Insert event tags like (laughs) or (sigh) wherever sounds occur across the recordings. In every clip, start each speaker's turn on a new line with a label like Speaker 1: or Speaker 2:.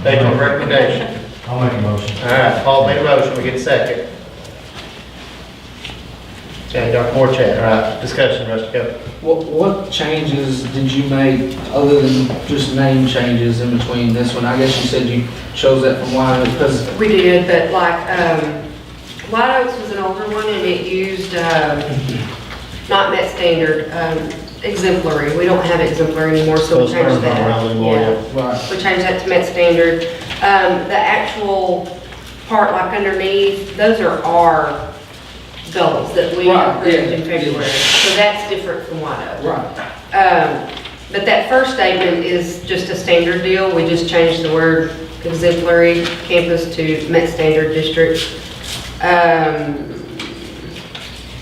Speaker 1: State your recommendation.
Speaker 2: I'll make a motion.
Speaker 1: All right, Paul made a motion, we get a second. Chad, Dr. Moore, Chad, all right, discussion, Rusty, go.
Speaker 3: What, what changes did you make other than just name changes in between this one? I guess you said you chose that from Wine Oak because
Speaker 4: We did, but like, um, White Oaks was an older one and it used, um, not met standard, um, exemplary. We don't have exemplary anymore, so we
Speaker 1: Those terms
Speaker 4: changed
Speaker 1: aren't
Speaker 4: that.
Speaker 1: around anymore,
Speaker 4: Yeah.
Speaker 1: yeah.
Speaker 3: Right.
Speaker 4: We changed that to met standard. Um, the actual part like underneath, those are our goals that we
Speaker 3: Right,
Speaker 4: approved in
Speaker 3: yeah, yeah.
Speaker 4: February. So that's different from White Oak.
Speaker 3: Right.
Speaker 4: Um, But that first statement is just a standard deal. We just changed the word exemplary campus to met standard district. Um,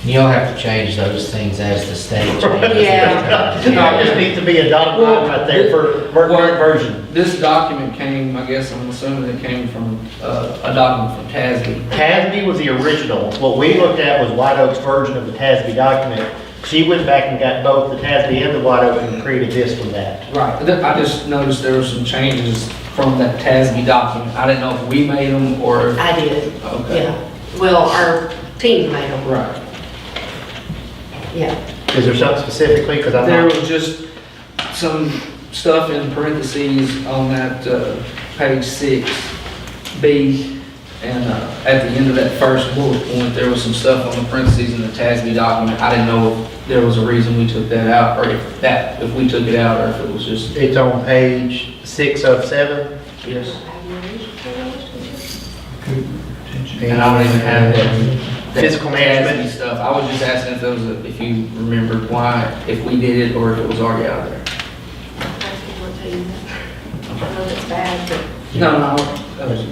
Speaker 5: You'll have to change those things as the state
Speaker 6: (laughs)
Speaker 5: changes.
Speaker 4: Yeah.
Speaker 1: It just needs to be a dotted line right there for ver- current version.
Speaker 3: This document came, I guess, I'm assuming it came from, uh, a document from TASB.
Speaker 1: Tasby was the original, what we looked at was White Oak's version of the Tasby document. She went back and got both the Tasby and the White Oak and created this from that.
Speaker 3: Right, Th- I just noticed there were some changes from that TASB document. I didn't know if we made them or,
Speaker 4: I did,
Speaker 3: okay.
Speaker 4: yeah. Well, our team made them,
Speaker 3: Right.
Speaker 4: yeah.
Speaker 1: Is there something specifically, because I'm
Speaker 3: There
Speaker 1: not,
Speaker 3: was just some stuff in parentheses on that, uh, page six, B, and, uh, at the end of that first bullet point, there was some stuff on the parentheses in the TASB document. I didn't know if there was a reason we took that out, or if that, if we took it out, or if it was just,
Speaker 1: it's on page six of seven.
Speaker 3: yes. And I don't even have that. that
Speaker 1: Physical management.
Speaker 3: Tasby Stuff. I was just asking if those, if you remembered why, if we did it or if it was already out there. No, no, that was-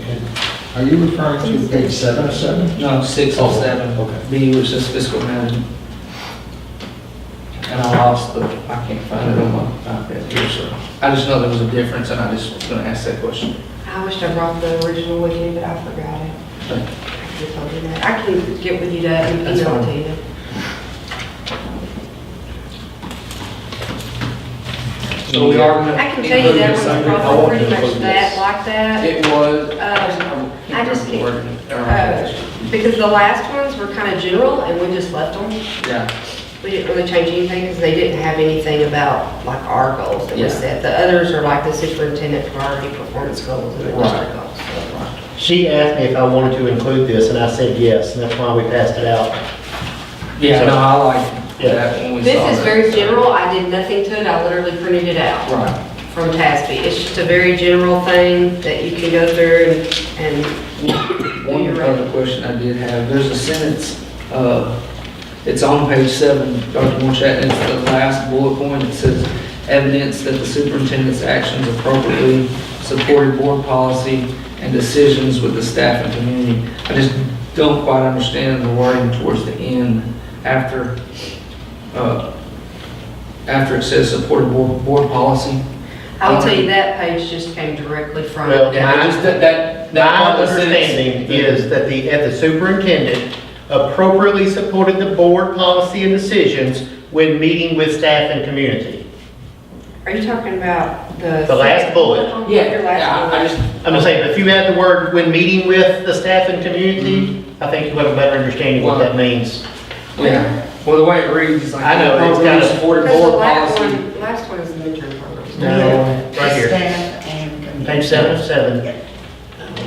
Speaker 2: Are you referring to page seven or seven?
Speaker 3: no, six or
Speaker 2: Oh,
Speaker 3: seven.
Speaker 2: okay.
Speaker 3: B was just fiscal management. And I lost the, I can't find it on my iPad here, so. I just know there was a difference and I just was gonna ask that question.
Speaker 4: I wish I brought the original with you, but I forgot it. I could've told you that. I can get with you to email
Speaker 3: That's
Speaker 4: it
Speaker 3: fine.
Speaker 4: to you.
Speaker 3: So we are gonna.
Speaker 4: I can tell you that
Speaker 3: include
Speaker 4: was
Speaker 3: something. I
Speaker 4: probably
Speaker 3: want
Speaker 4: pretty
Speaker 3: to
Speaker 4: much
Speaker 3: include
Speaker 4: that,
Speaker 3: this.
Speaker 4: like that.
Speaker 3: It was.
Speaker 4: Um, I just can't-
Speaker 3: can't.
Speaker 4: Uh, Because the last ones were kind of general, and we just left them.
Speaker 3: Yeah,
Speaker 4: We didn't really change anything, because they didn't have anything about, like, our goals that we
Speaker 3: Yeah.
Speaker 4: set. The others are like the superintendent priority performance goals and the
Speaker 3: Right.
Speaker 4: district goals. so.
Speaker 1: She asked me if I wanted to include this, and I said yes, and that's why we passed it out.
Speaker 3: yeah, no, I like
Speaker 1: Yeah.
Speaker 3: that when we saw
Speaker 4: This is
Speaker 3: that.
Speaker 4: very general, I did nothing to it, I literally printed it out
Speaker 3: Right,
Speaker 4: from TASB. It's just a very general thing that you can go through and,
Speaker 3: one other question I did have, there's a sentence, uh, it's on page seven, Dr. Morchat, and it's the last bullet point, it says, evidence that the superintendent's actions appropriately supported board policy and decisions with the staff and community. I just don't quite understand the wording towards the end, after, uh, after it says supported board, board policy.
Speaker 4: I will tell you, that page just came directly from.
Speaker 1: Well,
Speaker 3: Yeah, I just, that, that. that
Speaker 1: My
Speaker 3: part of the sentence-
Speaker 1: understanding is that the, at the superintendent appropriately supported the board policy and decisions when meeting with staff and community.
Speaker 4: Are you talking about the?
Speaker 1: The last bullet.
Speaker 3: Yeah,
Speaker 4: Your last
Speaker 3: yeah, I I
Speaker 4: bullet.
Speaker 3: just,
Speaker 1: I'm just saying, if you add the word "when meeting with the staff and community," I think you'll have a better understanding what that means.
Speaker 3: yeah, well, the way it reads, is like.
Speaker 1: I know, it's got a-
Speaker 3: Supported
Speaker 4: Because the
Speaker 3: board
Speaker 4: last
Speaker 3: policy.
Speaker 4: one, last one is the midterm program.
Speaker 1: No, right here,
Speaker 6: Staff and community.
Speaker 1: page seven of seven,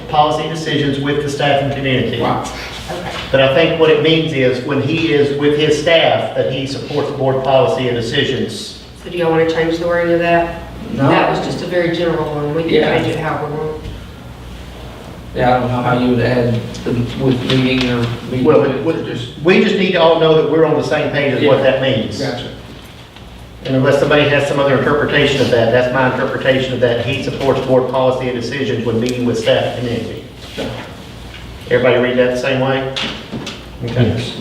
Speaker 1: policy decisions with the staff and community.
Speaker 3: Right,
Speaker 1: But I think what it means is, when he is with his staff, that he supports board policy and decisions.
Speaker 4: So do y'all want to change the wording of that? That
Speaker 3: no,
Speaker 4: was just a very general one. We can
Speaker 3: Yeah.
Speaker 4: change it how we want.
Speaker 3: yeah, I don't know how you would add the, with meeting or meeting
Speaker 1: Well, it
Speaker 3: with,
Speaker 1: would-
Speaker 3: just.
Speaker 1: We just need to all know that we're on the same page as what that means.
Speaker 3: Gotcha.
Speaker 1: And unless somebody has some other interpretation of that, that's my interpretation of that, he supports board policy and decisions when meeting with staff and community. Everybody read that the same way?
Speaker 2: Yes.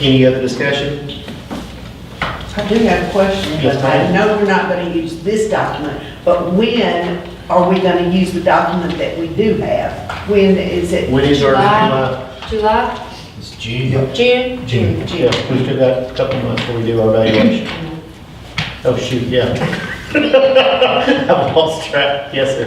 Speaker 1: Any other discussion?
Speaker 6: I do have a question, but
Speaker 1: Yes,
Speaker 6: I
Speaker 1: ma'am.
Speaker 6: know we're not gonna use this document, but when are we gonna use the document that we do have? When is it?
Speaker 1: When is our,
Speaker 4: July.
Speaker 1: July?
Speaker 4: July,
Speaker 5: It's June.
Speaker 4: June?
Speaker 2: June.
Speaker 4: June.
Speaker 1: yeah, we still got a couple months before we do our evaluation.
Speaker 2: Mm-hmm.
Speaker 1: (laughs) Oh, shoot, yeah. I've lost track, yes, sir.